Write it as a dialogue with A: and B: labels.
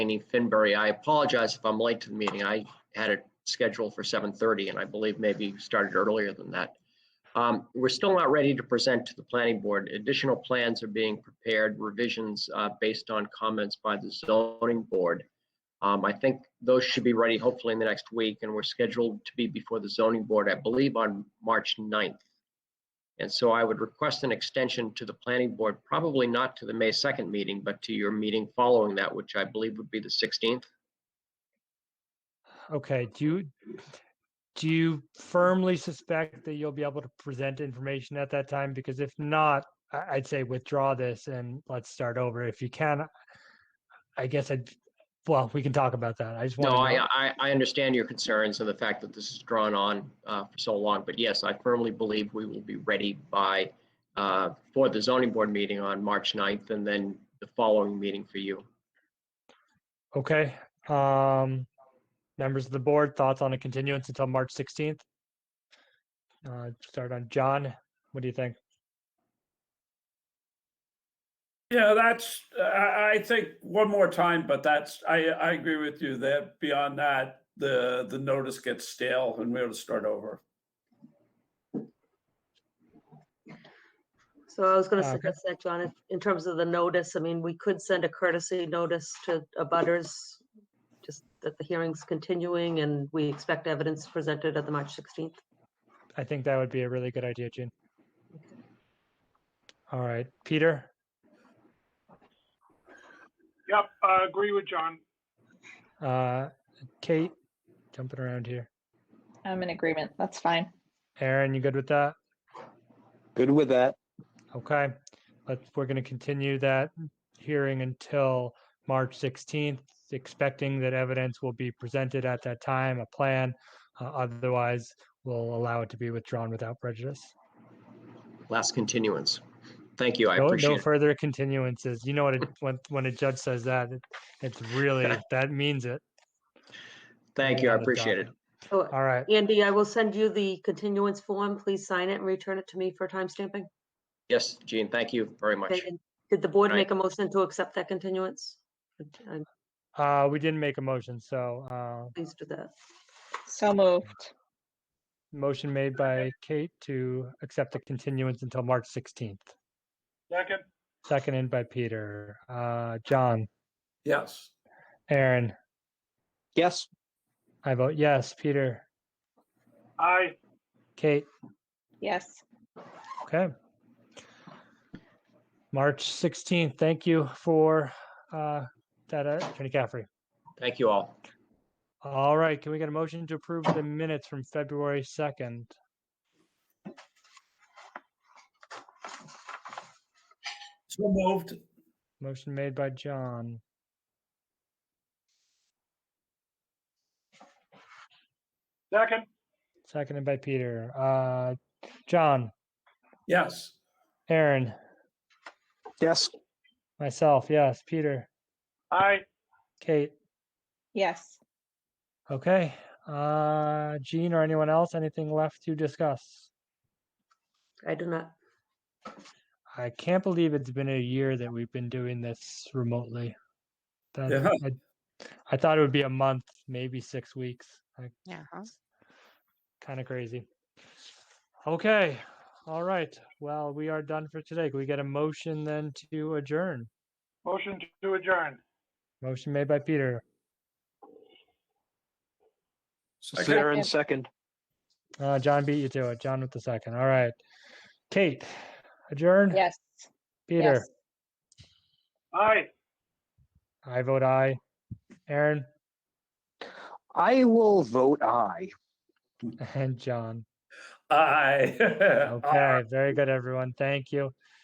A: Annie Finbury. I apologize if I'm late to the meeting. I had it scheduled for 7:30 and I believe maybe started earlier than that. Um, We're still not ready to present to the planning board. Additional plans are being prepared, revisions uh, based on comments by the zoning board. Um, I think those should be ready hopefully in the next week and we're scheduled to be before the zoning board, I believe, on March 9th. And so I would request an extension to the planning board, probably not to the May 2nd meeting, but to your meeting following that, which I believe would be the 16th.
B: Okay, do you, do you firmly suspect that you'll be able to present information at that time? Because if not, I, I'd say withdraw this and let's start over. If you can, I guess I'd, well, we can talk about that. I just
A: No,
B: want
A: I,
B: to,
A: I, I understand your concerns and the fact that this is drawn on uh, for so long, but yes, I firmly believe we will be ready by, uh, for the zoning board meeting on March 9th and then the following meeting for you.
B: okay. Um, members of the board, thoughts on a continuance until March 16th? Uh, start on John. What do you think?
C: Yeah, that's, uh, I, I think one more time, but that's, I, I agree with you that beyond that, the, the notice gets stale and we ought to start over.
D: So I was gonna
B: Uh, okay.
D: suggest that, John, if- in terms of the notice, I mean, we could send a courtesy notice to abutters, just that the hearing's continuing and we expect evidence presented at the March 16th.
B: I think that would be a really good idea, Gene. All right, Peter?
E: Yep, I agree with John.
B: Uh, Kate, jumping around here.
F: I'm in agreement. That's fine.
B: Aaron, you good with that?
G: Good with that.
B: Okay. But we're going to continue that hearing until March 16th, expecting that evidence will be presented at that time, a plan. Uh, otherwise, we'll allow it to be withdrawn without prejudice.
A: Last continuance. Thank you, I
B: no,
A: appreciate
B: no
A: it.
B: further continuances. You know what? It, when when a judge says that, it, it's really that means it.
A: Thank you, I
B: Another
A: appreciate it.
B: document.
D: So
B: All right.
D: Andy, I will send you the continuance form. Please sign it and return it to me for timestamping.
A: Yes, Gene, thank you very much.
D: Okay, and Did the board
A: Right.
D: make a motion to accept that continuance? And
B: Uh, we didn't make a motion, so uh,
D: please do that.
F: So moved.
B: Motion made by Kate to accept the continuance until March 16th,
E: Second,
B: seconded by Peter. Uh, John,
C: Yes.
B: Aaron,
G: Yes,
B: I vote yes. Peter,
E: aye.
B: Kate,
F: Yes.
B: okay. March 16th, thank you for uh, that, uh, Attorney Caffrey.
A: Thank you all.
B: All right, can we get a motion to approve the minutes from February 2nd?
C: So moved.
B: Motion made by John.
E: Second,
B: Seconded by Peter. Uh, John,
C: Yes.
B: Aaron,
G: yes,
B: myself, yes. Peter,
E: aye.
B: Kate,
F: Yes.
B: Okay. Uh, Gene or anyone else, anything left to discuss?
D: I do not.
B: I can't believe it's been a year that we've been doing this remotely. That,
C: Yeah.
B: I, I thought it would be a month, maybe six weeks. Like,
H: Yeah.
B: kind of crazy. Okay. All right. Well, we are done for today. Can we get a motion then to adjourn?
E: Motion to adjourn.
B: Motion made by Peter.
C: Second.
G: Aaron second.
B: Uh, John beat you to it. John with the second. All right. Kate, adjourn.
F: Yes.
B: Peter,
F: Yes.
E: Aye.
B: I vote aye. Aaron
G: I will vote aye.
B: and John.
C: Aye. Uh,
B: Okay, very good, everyone. Thank you.